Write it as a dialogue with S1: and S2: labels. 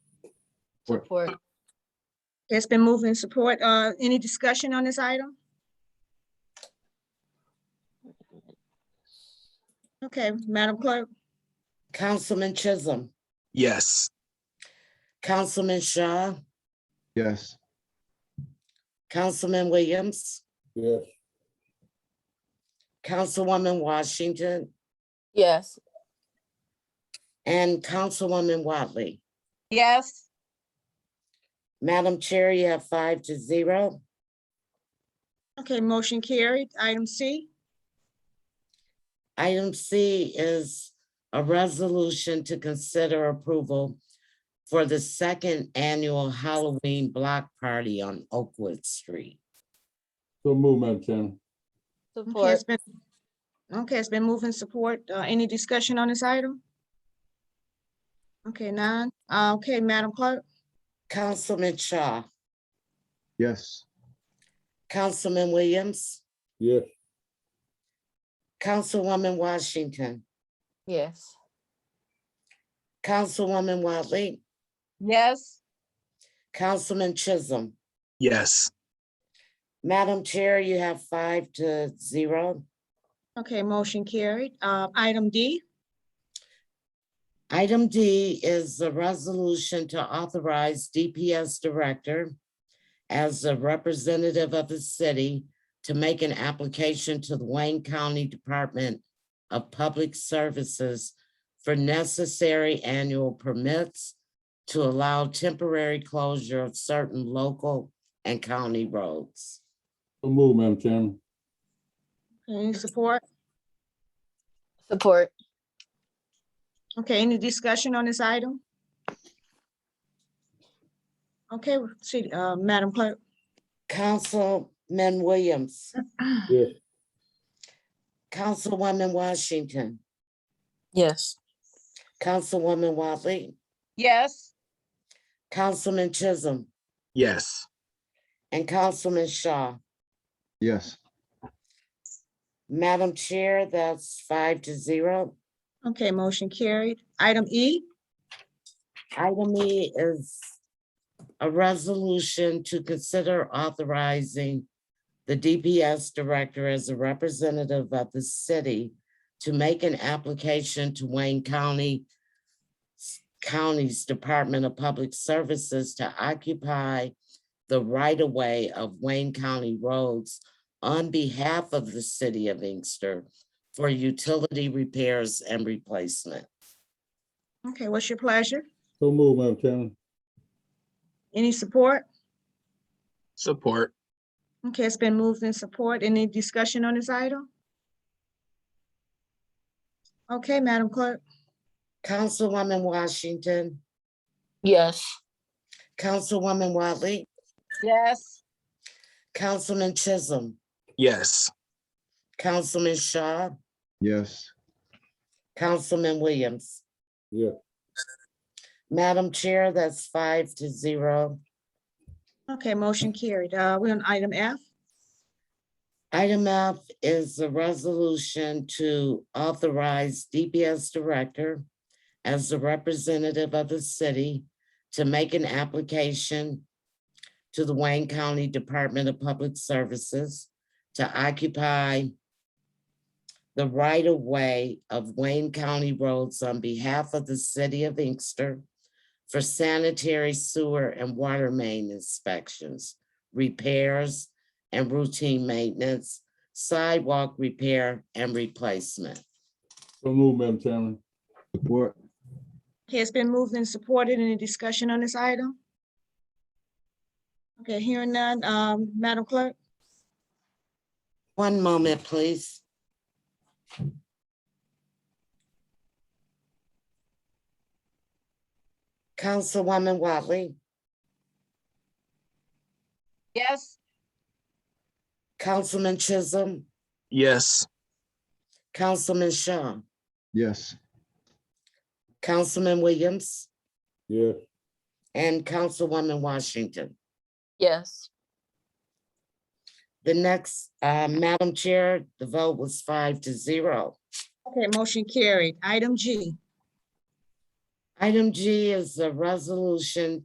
S1: Support.
S2: It's been moved in support. Uh, any discussion on this item? Okay, Madam Clerk,
S3: Councilman Chisholm,
S4: Yes.
S3: Councilman Shaw,
S1: Yes.
S3: Councilman Williams,
S5: Yes.
S3: Councilwoman Washington,
S6: Yes.
S3: and Councilwoman Watley.
S2: yes,
S3: Madam Chair, you have five to zero.
S2: okay, motion carried. Item C,
S3: Item C is a resolution to consider approval for the second annual Halloween block party on Oakwood Street.
S5: So move, Madam Chairman.
S2: okay,
S6: Support.
S2: it's been, okay, it's been moved in support. Uh, any discussion on this item? Okay, none. Uh, okay, Madam Clerk,
S3: Councilman Shaw,
S1: Yes.
S3: Councilman Williams,
S5: Yes.
S3: Councilwoman Washington,
S6: Yes.
S3: Councilwoman Watley,
S6: Yes.
S3: Councilman Chisholm.
S4: Yes.
S3: Madam Chair, you have five to zero.
S2: okay, motion carried. Uh, item D,
S3: Item D is a resolution to authorize DPS Director as a representative of the city to make an application to the Wayne County Department of Public Services for necessary annual permits to allow temporary closure of certain local and county roads.
S5: So move, Madam Chairman.
S2: any support?
S6: Support.
S2: Okay, any discussion on this item? Okay, see, uh, Madam Clerk.
S3: Councilman Williams,
S5: Yes.
S3: Councilwoman Washington,
S6: Yes.
S3: Councilwoman Watley,
S2: Yes.
S3: Councilman Chisholm,
S4: Yes.
S3: and Councilman Shaw.
S1: Yes.
S3: Madam Chair, that's five to zero.
S2: Okay, motion carried. Item E,
S3: Item E is a resolution to consider authorizing the DPS Director as a representative of the city to make an application to Wayne County County's Department of Public Services to occupy the right-of-way of Wayne County roads on behalf of the city of Inkster for utility repairs and replacement.
S2: okay, what's your pleasure?
S5: So move, Madam Chairman.
S2: Any support?
S4: Support.
S2: Okay, it's been moved in support. Any discussion on this item? Okay, Madam Clerk.
S3: Councilwoman Washington,
S6: Yes.
S3: Councilwoman Watley,
S6: Yes.
S3: Councilman Chisholm,
S4: Yes.
S3: Councilman Shaw,
S1: Yes.
S3: Councilman Williams.
S5: Yeah.
S3: Madam Chair, that's five to zero.
S2: Okay, motion carried. Uh, we're on item F.
S3: Item F is a resolution to authorize DPS Director as the representative of the city to make an application to the Wayne County Department of Public Services to occupy the right-of-way of Wayne County roads on behalf of the city of Inkster for sanitary sewer and water main inspections, repairs, and routine maintenance, sidewalk repair and replacement.
S5: So move, Madam Chairman.
S1: Support.
S2: Okay, it's been moved and supported. Any discussion on this item? Okay, hearing none. Um, Madam Clerk.
S3: One moment, please. Councilwoman Watley,
S6: Yes.
S3: Councilman Chisholm,
S4: Yes.
S3: Councilman Shaw,
S1: Yes.
S3: Councilman Williams,
S5: Yes.
S3: and Councilwoman Washington.
S6: Yes.
S3: The next, uh, Madam Chair, the vote was five to zero.
S2: Okay, motion carried. Item G.
S3: Item G is a resolution